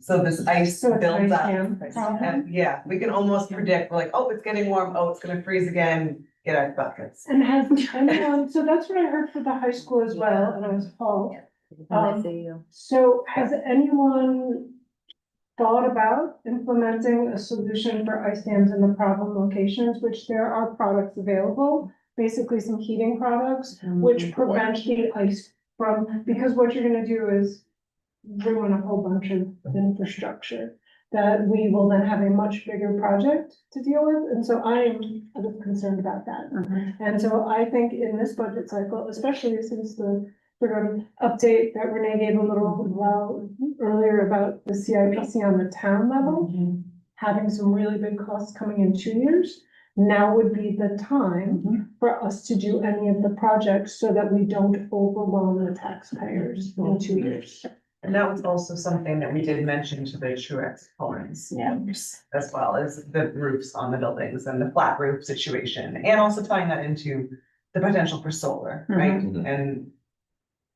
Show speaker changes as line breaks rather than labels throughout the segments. So this ice
So it's
builds
ice
up.
jam problem?
And yeah, we can almost predict, we're like, oh, it's getting warm, oh, it's gonna freeze again, get our buckets.
And has, and, um, so that's what I heard for the high school as well, and I was appalled. Um, So has anyone thought about implementing a solution for ice dams in the problem locations, which there are products available? Basically some heating products,
Mm,
which prevent the ice from, because what you're gonna do is ruin a whole bunch of infrastructure that we will then have a much bigger project to deal with, and so I am a bit concerned about that. And so I think in this budget cycle, especially since the sort of update that Renee gave a little while earlier about the CIPC on the town level, having some really big costs coming in two years, now would be the time for us to do any of the projects so that we don't overwhelm the taxpayers in two years.
And that was also something that we did mention to the Truax Florence as well as the roofs on the buildings and the flat roof situation. And also tying that into the potential for solar, right?
Mhm.
And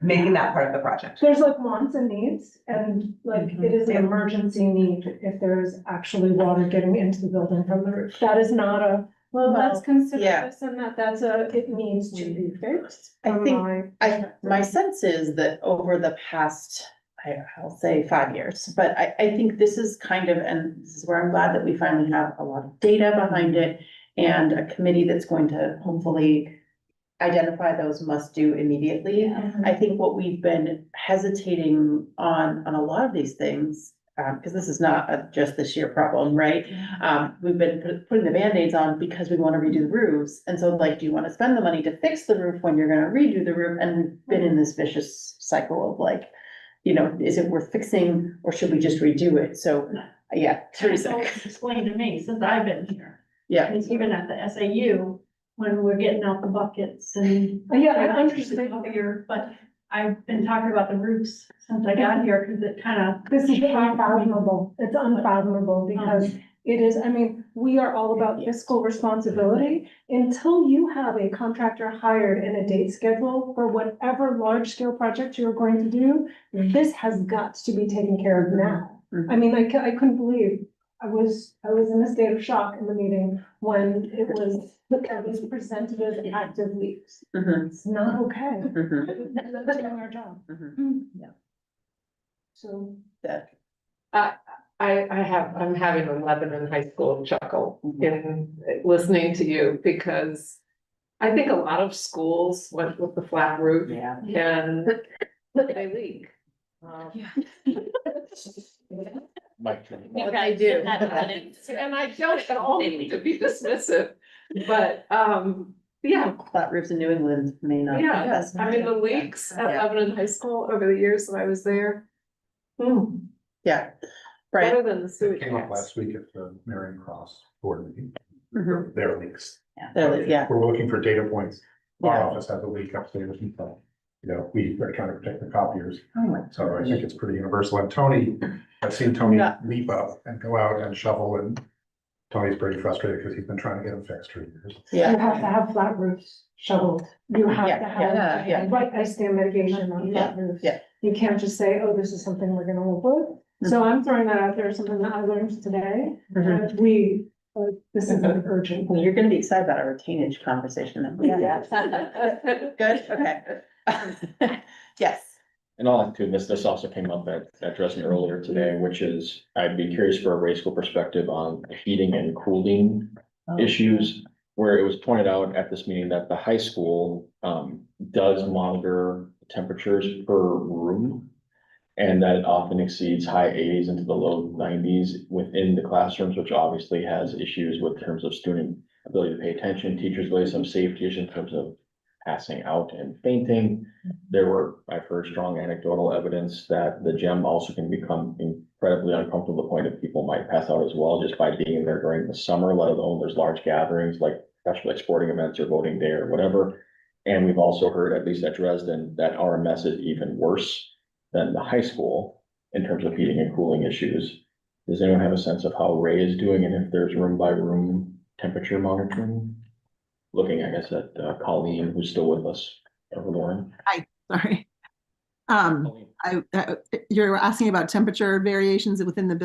making that part of the project.
There's like wants and needs, and like it is an
Mhm.
emergency need if there is actually water getting into the building from the roof. That is not a, well, let's consider
yeah. Mm.
this and that, that's a, it needs to be fixed.
I
from
think-
my
I, my sense is that over the past, I, I'll say five years, but I, I think this is kind of, and this is where I'm glad that we finally have a lot of data behind it. And a committee that's going to hopefully identify those must do immediately. I think what we've been hesitating on, on a lot of these things, um, because this is not a just this year problem, right? Um, we've been put- putting the Band-Aids on because we want to redo the roofs. And so like, do you want to spend the money to fix the roof when you're going to redo the roof? And we've been in this vicious cycle of like, you know, is it worth fixing or should we just redo it? So, yeah,
It's
Teresa,
always explained to me since I've been here,
yeah.
and even at the SAU, when we're getting out the buckets and.
Uh, Yeah, I
I'm interested
understand.
in here, but I've been talking about the roofs since I got here, cause it kinda.
This is unfathomable. It's unfathomable because
um,
it is, I mean, we are all about fiscal responsibility. Until you have a contractor hired and a date schedule for whatever large scale project you're going to do, this has got to be taken care of now. I mean, I, cou- I couldn't believe, I was, I was in a state of shock in the meeting when it was, it was presented as active leaks.
Mhm,
It's not okay.
mhm,
That's doing our job,
mhm.
so.
That-
I, I have, I'm having a Lebanon High School chuckle
Mm-hmm.
in listening to you because I think a lot of schools went with the flat roof
Yeah.
and they leak. Um,
Mike.
What they do.
And I don't at all mean to be dismissive, but, um, yeah,
Flat roofs in New England may not. be
Yeah,
best.
I mean, the leaks at
Yeah.
Lebanon High School over the years that I was there. hmm,
Mm.
Yeah, right.
better than the sewage.
Came up
plants.
last week at the Marion Cross board meeting,
Mhm.
their leaks.
There it is, Yeah,
We're looking for data points. Our
yeah.
office has a leak upstairs and so, you know, we are trying to protect the copiers.
Oh my
So I think it's pretty universal. And Tony, I've seen Tony
Yeah.
leap up and go out and shovel and Tony's pretty frustrated because he's been trying to get them fixed for years.
You
Yeah.
have to have flat roofs shoveled. You have to
Yeah, yeah, yeah.
have, right, ice dam mitigation on flat roofs.
yeah.
You can't just say, oh, this is something we're gonna work with.
Mm-hmm.
So I'm throwing that out there, as something that I learned today.
Mhm.
And We, uh, this is an urgent.
Well, you're gonna be excited about our retainage conversation that we had. Good, okay. Yes.
And all that too, this, this also came up at, at Dresden earlier today, which is, I'd be curious for a race school perspective on heating and cooling issues. Where it was pointed out at this meeting that the high school, um, does monitor temperatures per room. And that it often exceeds high eighties into the low nineties within the classrooms, which obviously has issues with terms of student ability to pay attention, teachers' ability, some safety issues in terms of passing out and fainting there were, I've heard strong anecdotal evidence that the gym also can become incredibly uncomfortable, to the point that people might pass out as well just by being in there during the summer, let alone there's large gatherings like, especially like sporting events or voting day or whatever. And we've also heard, at least at Dresden, that RMS is even worse than the high school in terms of heating and cooling issues. Does anyone have a sense of how Ray is doing and if there's room by room temperature monitoring? Looking, I guess, at uh, Colleen, who's still with us, or Lauren.
Sorry. Um,
Colleen.
I, I- you're asking about temperature variations within the building.